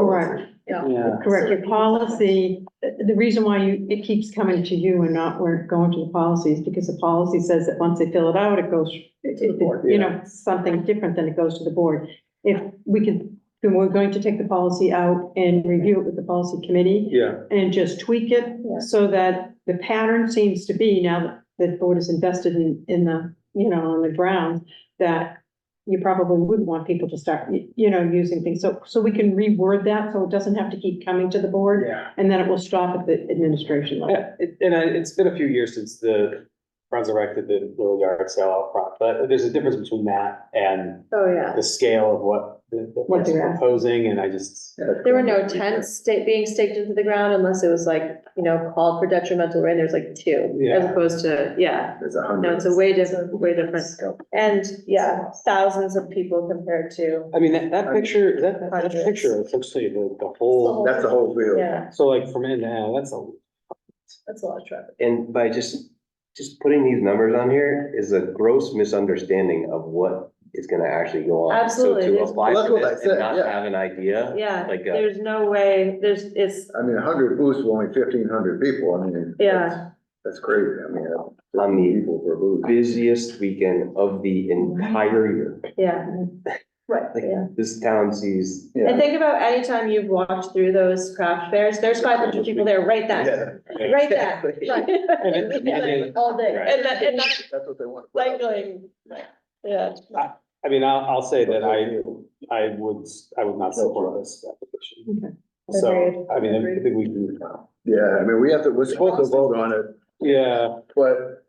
Correct. Yeah. Yeah, Correct, your policy, the the reason why you, it keeps coming to you and not we're going to the policies, because the policy says that once they fill it out, it goes, To the board. you know, something different than it goes to the board. If we can, then we're going to take the policy out and review it with the policy committee yeah, and just tweak it Yeah. so that the pattern seems to be now that the board is invested in, in the, you know, on the ground, that you probably wouldn't want people to start, y- you know, using things. So, so we can reword that, so it doesn't have to keep coming to the board. yeah. And then it will stop at the administration level. Yeah, it- And I, it's been a few years since the Friends erected the little yard sale out front, but there's a difference between that and Oh, yeah. the scale of what the, the- What what's they're asking. proposing, and I just. There were no tents sta- being staked into the ground unless it was like, you know, called for detrimental rain. There's like two as Yeah. opposed to, yeah. There's a No, hundred. it's a way different, way different. Scope. And yeah, thousands of people compared to, I mean, that, that picture, that, that- that Hundreds. picture, essentially, the, the whole, That's the whole field. yeah, so like from end to end, that's a, that's a lot of traffic. And by just, just putting these numbers on here is a gross misunderstanding of what is gonna actually go on. Absolutely, So to there's- apply Well, that's for what I this said, and not yeah. have an idea. Yeah, Like, uh, there's no way, there's, it's, I mean, a hundred booths with only fifteen hundred people, I mean. Yeah. that's- That's crazy, I mean. that's On the- People per booth. Busiest weekend of the entire year. yeah. Right, Like, yeah. this town sees, And Yeah. think about any time you've walked through those craft fairs, there's five hundred people there right then, Yeah, right then. Exactly. Right. And it- and it- All day. Right. And that, and that That's what they want. to put out. cycling, yeah. I mean, I'll, I'll say that I, I would, I would not support this Okay. application. So, I mean, I think we can, Yeah, I mean, we have to, we're supposed to vote on it, yeah, but.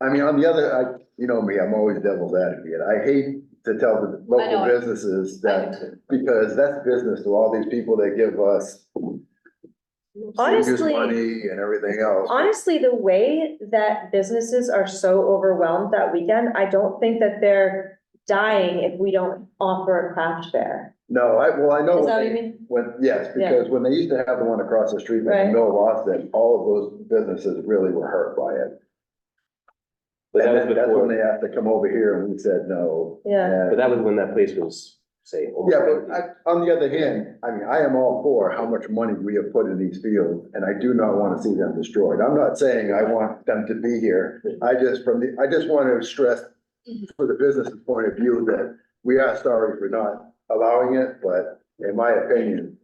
I mean, on the other, I, you know me, I'm always devil's advocate, I hate to tell the local know. businesses that, because that's business to all these people that give us. serious Honestly- Money and everything else. Honestly, the way that businesses are so overwhelmed that weekend, I don't think that they're dying if we don't offer a craft fair. No, I, well, I know. Is what that what they- you mean? When, yes, Yeah. because when they used to have the one across the street from the Right. middle of Austin, all of those businesses really were hurt by it. but that And was then that's when before, they had to come over here and we said no. Yeah, but And- that was when that place was, say. Yeah, but I, on the other hand, I mean, I am all for how much money we have put in these fields and I do not want to see them destroyed. I'm not saying I want them to be here. I just from the, I just want to stress Mm-hmm. for the business's point of view that we are sorry for not allowing it, but in my opinion,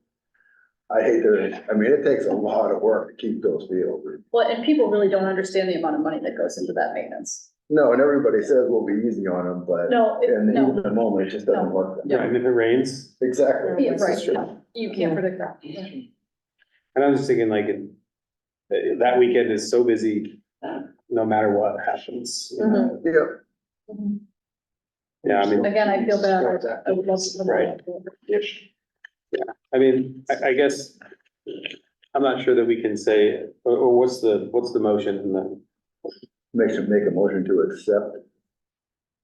I hate to, I mean, it takes a lot of work to keep those fields. Well, and people really don't understand the amount of money that goes into that maintenance. No, and everybody says we'll be easy on them, but No, it- in the heat no, of the moment, it just doesn't No. work. I mean, if it rains, Exactly. Yeah, This is right. true. you can't predict that. and I was just thinking like, it- that that weekend is so busy, no matter what happens. you know? Yeah. Yeah, I mean. Again, I feel bad. I would love to- Right. Mm-hmm. I mean, I, I guess, I'm not sure that we can say, or, or what's the, what's the motion and then, Make should make a motion to accept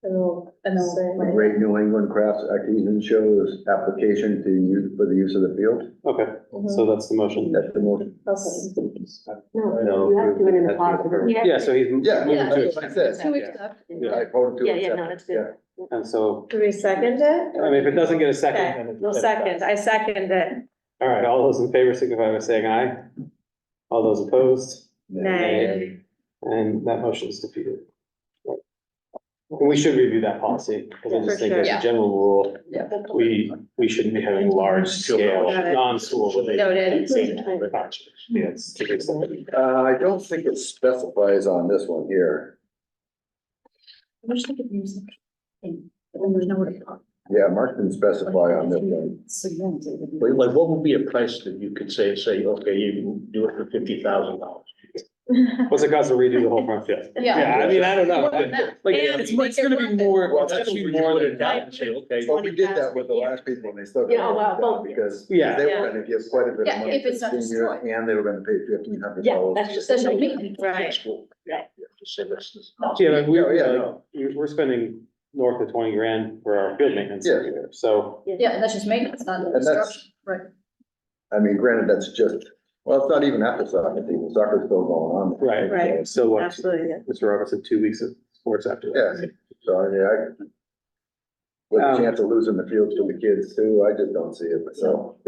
and we'll- And then, Great New England Crafts Artisan Show's application to use, for the use of the field. okay, Mhm. so that's the motion. That's the motion. Also, No, No, you have to do it in a that's not positive. fair. you have Yeah, to- so he's. Yeah, moving to- that's what I said. To accept. Yeah. I voted to Yeah, yeah, no, accept that's it. good. And so, Do we second it? I mean, if it doesn't get a Okay, second. then it- We'll second, I second it. All right, all those in favor signify by saying aye. All those opposed, Nay. and that motion is defeated. And we should review that policy, because I For just think as sure. a general rule, Yeah. we, we shouldn't be having large scale, Got it. non-school. Noted. Yes. Yeah. Uh, I don't think it specifies on this one here. I wish they could use it. And there's nowhere to park. Yeah, Mark didn't specify on this one. Like, like, what would be a price that you could say, say, okay, you can do it for fifty thousand dollars? What's it cost to redo the whole front field? Yeah, I mean, I don't know. More than that. Like, And it's, it's gonna be more, it's gonna be more than that. Say, okay, Well, we did that with the last people and they still. Yeah, oh, well, well, Because they Yeah. were gonna give quite a bit of Yeah, money if to the it's not senior destroyed. and they were gonna pay fifteen hundred Yeah, dollars. that's just. There's no maintenance. Right. Say this is. Yeah, like, we, uh, No, yeah, like, no. we- we're spending north of twenty grand for our field maintenance Yeah. every year, so. Yeah, and that's just maintenance, not that's- construction, right? I mean, granted, that's just, well, it's not even after soccer season. Soccer's still going on. Right. Right. So what, Mr. Absolutely, yeah. Roberts said two weeks of sports after that. Yeah, so I mean, I, With a Um, chance of losing the fields to the kids too, I just don't see it myself.